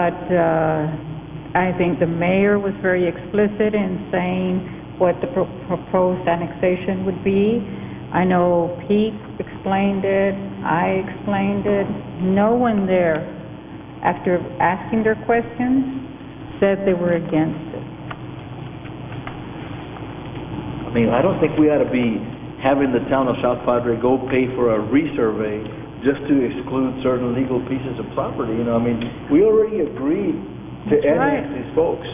But uh, I think the mayor was very explicit in saying what the pro- proposed annexation would be. I know Pete explained it, I explained it. No one there, after asking their questions, said they were against it. I mean, I don't think we ought to be having the town of South Padre go pay for a resurvey just to exclude certain legal pieces of property, you know, I mean, we already agreed to That's right. annex these folks,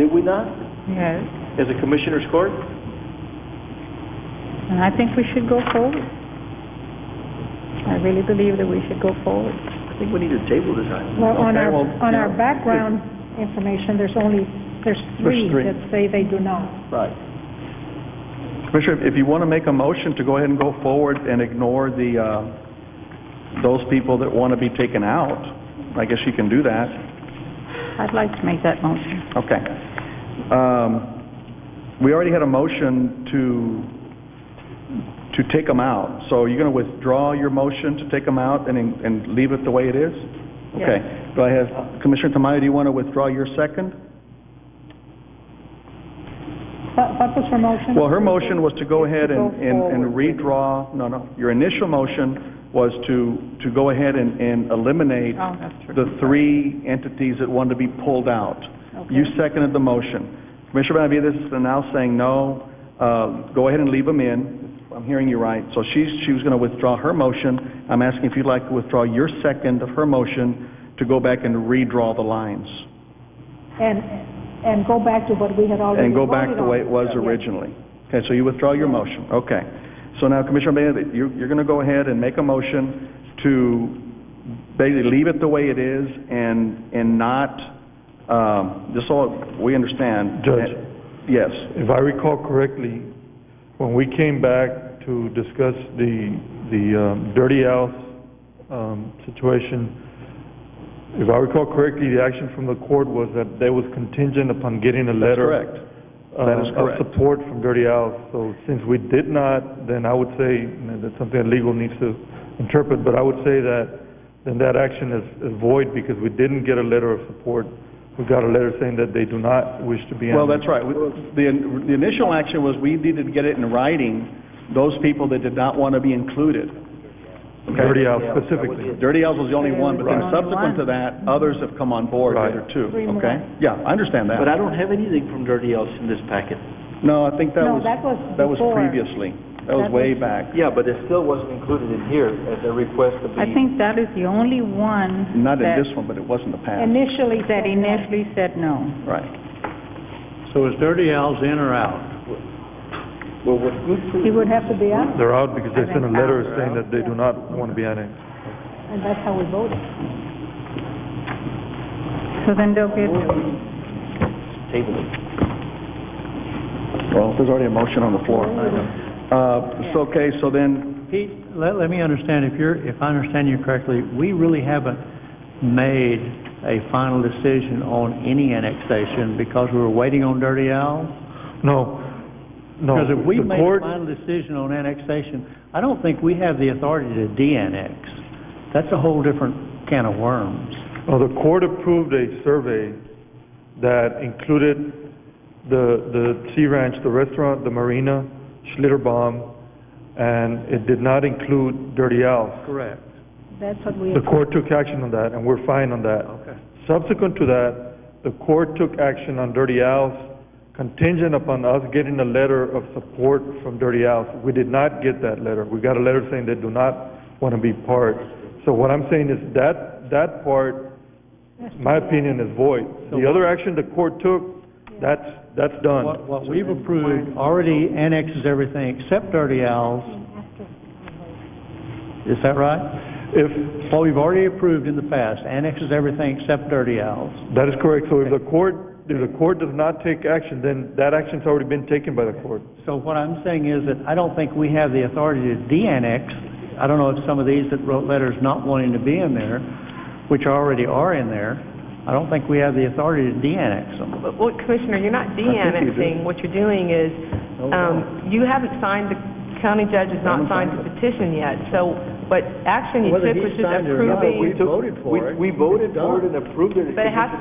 did we not? Yes, As a commissioner's court? and I think we should go forward. I really believe that we should go forward. I think we need to table this item. Well, on Okay, our, well, on our yeah. background information, there's only, there's three three. that say they do not. Right. Commissioner, if you want to make a motion to go ahead and go forward and ignore the, uh, those people that want to be taken out, I guess you can do that. I'd like to make that motion. Okay. Um, We already had a motion to, to take them out, so you're going to withdraw your motion to take them out and, and leave it the way it is? Okay. Do I have, Commissioner Tamayo, do you want to withdraw your second? What, what was her motion? Well, her motion was to go ahead and, To go and and forward. redraw, no, no, your initial motion was to, to go ahead and, and eliminate Oh, that's true. the three entities that wanted to be pulled out. You seconded the motion. Commissioner Benavides is now saying, no, uh, go ahead and leave them in. I'm hearing you right. So she's, she was gonna withdraw her motion. I'm asking if you'd like to withdraw your second of her motion to go back and redraw the lines And, and go back to what we had already and Oh, voted go on. back the way it was Yeah. originally. Okay, so you withdraw your motion, okay. So now, Commissioner Benavides, you're, you're gonna go ahead and make a motion to basically leave it the way it is and, and not, um, just so we understand. Judge. Yes, If I recall correctly, when we came back to discuss the, the um, Dirty Al's, um, situation, if I recall correctly, the action from the court was that that was contingent upon getting a that's letter. correct. That is uh, correct. Of support from Dirty Al's. So since we did not, then I would say, and that's something that legal needs to interpret, but I would say that then that action is is void because we didn't get a letter of support. We got a letter saying that they do not wish to be. Well, that's annexed. right. We- The, the initial action was we needed to get it in writing, those people that did not want to be included. Okay? Dirty Al specifically. Dirty L's was the only one, but then Right. subsequent to that, others have come on board, the Right. other two, okay? Yeah, I understand that. But I don't have anything from Dirty Al's in this packet. No, I think that No, was, that was that was before. previously. That was That way back. Yeah, but it still wasn't included in here as a request to be... I think that is the only one Not in that, this one, but it was in the past. Initially. that said no. initially said no. Right. So is Dirty Al's in or out? Well, with good He would have to be out, They're out because they Are they sent a letter out? saying that they do not want to be annexed. and that's how we voted. So then they'll get, table it. Well, there's already a motion on the floor. Uh, so, okay, so then, Pete, let, let me understand, if you're, if I understand you correctly, we really haven't made a final decision on any annexation because we were waiting on Dirty Al's? No, no. Because if we The made a court- final decision on annexation, I don't think we have the authority to de-annex. That's a whole different can of worms. Well, the court approved a survey that included the, the Sea Ranch, the restaurant, the marina, Schlitterbaum, and it did not include Dirty Al's. Correct. That's what we, The court took action on that, and we're fine on that. Okay. Subsequent to that, the court took action on Dirty Al's contingent upon us getting a letter of support from Dirty Al's. We did not get that letter. We got a letter saying they do not want to be part. So what I'm saying is that, that part, my opinion, is void. The other action the court took, that's, that's What, done. what we've approved already annexes everything except Dirty Al's. Is that right? If, What we've already approved in the past annexes everything except Dirty Al's. that is correct, so if the court, if the court does not take action, then that action's already been taken by the court. So what I'm saying is that I don't think we have the authority to de-annex. I don't know if some of these that wrote letters not wanting to be in there, which already are in there, I don't think we have the authority to de-annex them. But what, Commissioner, you're not you do. Oh, de-annexing, what you're doing is, um, you haven't signed the county judge has not signed the petition yet, so, but action you took was just Whether he signed it or not, approving. we voted for it. We, we voted It's done. for it and approved it. But it has to